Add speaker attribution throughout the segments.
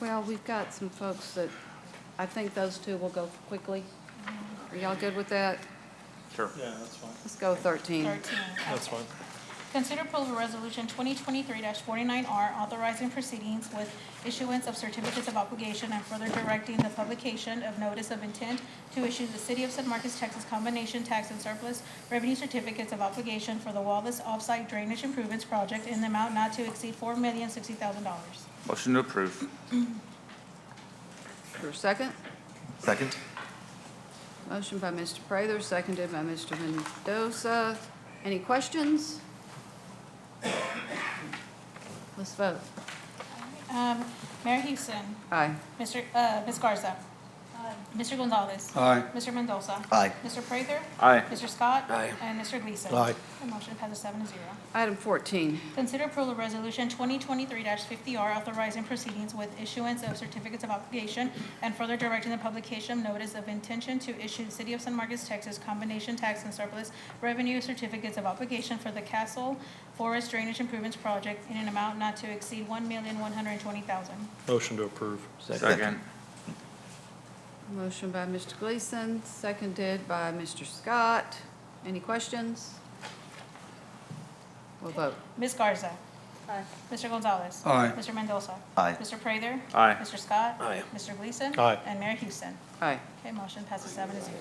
Speaker 1: Well, we've got some folks that, I think those two will go quickly. Are y'all good with that?
Speaker 2: Sure.
Speaker 3: Yeah, that's fine,
Speaker 1: Let's go 13.
Speaker 4: 13.
Speaker 3: that's fine.
Speaker 4: Consider approval of resolution 2023-49R authorizing proceedings with issuance of certificates of obligation and further directing the publication of notice of intent to issue the City of San Marcos, Texas combination tax and surplus revenue certificates of obligation for the Wallace Offsite Drainage Improvements Project in the amount not to exceed $4,060,000.
Speaker 2: Motion to approve.
Speaker 1: For a second?
Speaker 2: Second.
Speaker 1: Motion by Mr. Prather, seconded by Mr. Mendoza. Any questions? Let's vote.
Speaker 4: Um, Mayor Houston,
Speaker 1: Aye.
Speaker 4: Mr., uh, Ms. Garza. Mr. Gonzalez.
Speaker 3: Aye.
Speaker 4: Mr. Mendoza.
Speaker 5: Aye.
Speaker 4: Mr. Prather.
Speaker 2: Aye.
Speaker 4: Mr. Scott.
Speaker 5: Aye.
Speaker 4: And Mr. Gleason.
Speaker 3: Aye.
Speaker 4: The motion passes seven to zero.
Speaker 1: Item 14.
Speaker 4: Consider approval of resolution 2023-50R authorizing proceedings with issuance of certificates of obligation and further directing the publication of notice of intention to issue the City of San Marcos, Texas combination tax and surplus revenue certificates of obligation for the Castle Forest Drainage Improvements Project in an amount not to exceed $1,120,000.
Speaker 3: Motion to approve.
Speaker 2: Second.
Speaker 1: Motion by Mr. Gleason, seconded by Mr. Scott. Any questions? We'll vote.
Speaker 4: Ms. Garza. Mr. Gonzalez.
Speaker 3: Aye.
Speaker 4: Mr. Mendoza.
Speaker 5: Aye.
Speaker 4: Mr. Prather.
Speaker 2: Aye.
Speaker 4: Mr. Scott.
Speaker 5: Aye.
Speaker 4: Mr. Gleason.
Speaker 3: Aye.
Speaker 4: And Mayor Houston.
Speaker 1: Aye.
Speaker 4: Okay, motion passes seven to zero.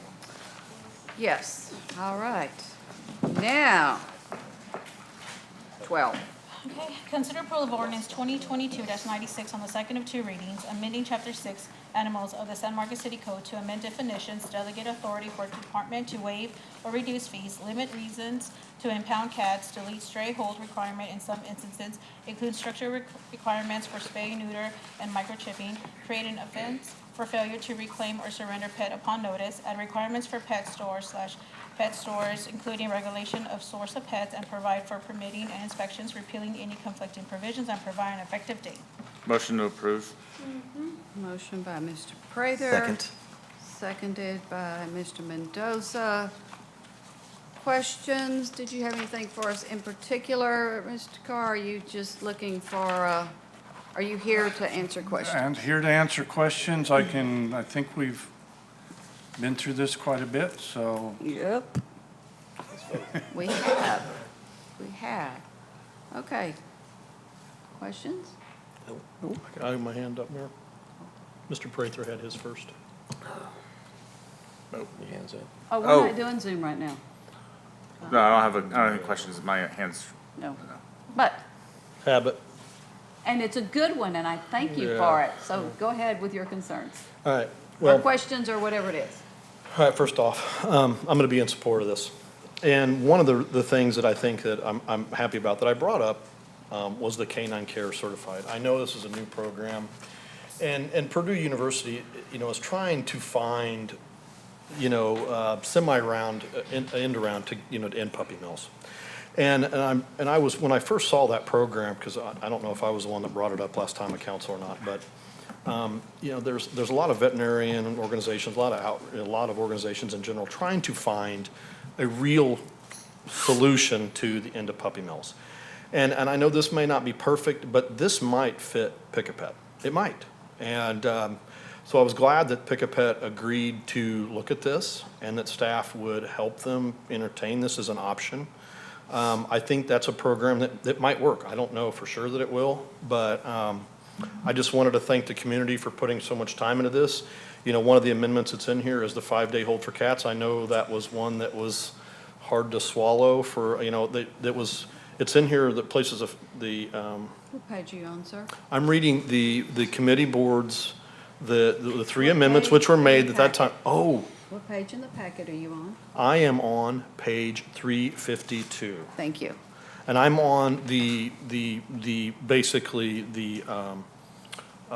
Speaker 1: Yes, all right. Now, 12.
Speaker 4: Okay, consider approval of ordinance twenty twenty-two ninety-six on the second of two readings, amending chapter six, animals of the San Marcos City Code to amend definitions, delegate authority for department to waive or reduce fees, limit reasons to impound cats, delete stray hold requirement in some instances, include structure requ- requirements for spay, neuter, and microchipping, create an offense for failure to reclaim or surrender pet upon notice, and requirements for pet stores slash pet stores, including regulation of source of pets, and provide for permitting and inspections, repealing any conflicting provisions, and provide an effective date.
Speaker 2: Motion to approve.
Speaker 1: Motion by Mr. Prather.
Speaker 5: Second.
Speaker 1: Seconded by Mr. Mendoza. Questions? Did you have anything for us in particular, Mr. Carr? Are you just looking for, uh, are you here to answer questions?
Speaker 6: And here to answer questions, I can, I think we've been through this quite a bit, so
Speaker 1: Yep. We have, we have. Okay. Questions?
Speaker 3: I have my hand up, Mayor. Mr. Prather had his first.
Speaker 5: Your hands up.
Speaker 1: Oh,
Speaker 2: Oh.
Speaker 1: we're not doing Zoom right now.
Speaker 2: No, I don't have, a. I don't have any questions. My hand's,
Speaker 1: No. But
Speaker 3: Habit.
Speaker 1: And it's a good one, and I thank you for it. So go ahead with your concerns,
Speaker 3: All right,
Speaker 1: or
Speaker 3: well, all
Speaker 1: questions, or whatever it is.
Speaker 3: right, first off, um, I'm gonna be in support of this. And one of the, the things that I think that I'm, I'm happy about, that I brought up, um, was the Canine Care Certified. I know this is a new program, and, and Purdue University, you know, is trying to find you know, uh, semi-round, uh, en- end-around to, you know, to end puppy mills. And, and I'm, and I was, when I first saw that program, because I, I don't know if I was the one that brought it up last time at council or not, but, um, you know, there's, there's a lot of veterinarian organizations, a lot of out, a lot of organizations in general trying to find a real solution to the end of puppy mills. And, and I know this may not be perfect, but this might fit Pick a Pet. It might. And um, so I was glad that Pick a Pet agreed to look at this and that staff would help them entertain this as an option. Um, I think that's a program that, that might work. I don't know for sure that it will, but um, I just wanted to thank the community for putting so much time into this. You know, one of the amendments that's in here is the five-day hold for cats. I know that was one that was hard to swallow for, you know, that, that was, it's in here that places of the, um,
Speaker 1: What page are you on, sir?
Speaker 3: I'm reading the, the committee boards, the, the three amendments which were made at that time. Oh,
Speaker 1: What page in the packet are you on?
Speaker 3: I am on page three fifty-two.
Speaker 1: Thank you.
Speaker 3: And I'm on the, the, the, basically, the, um, um,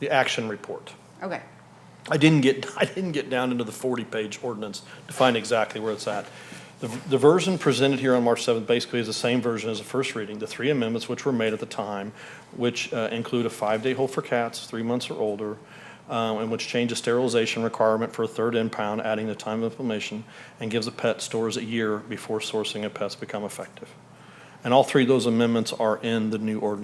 Speaker 3: the action report.
Speaker 1: Okay,
Speaker 3: I didn't get, I didn't get down into the forty-page ordinance to find exactly where it's at. The, the version presented here on March seventh basically is the same version as the first reading. The three amendments which were made at the time, which uh, include a five-day hold for cats, three months or older, um, and which change the sterilization requirement for a third impound, adding the time of implementation, and gives the pet stores a year before sourcing of pets become effective. And all three of those amendments are in the new ordinance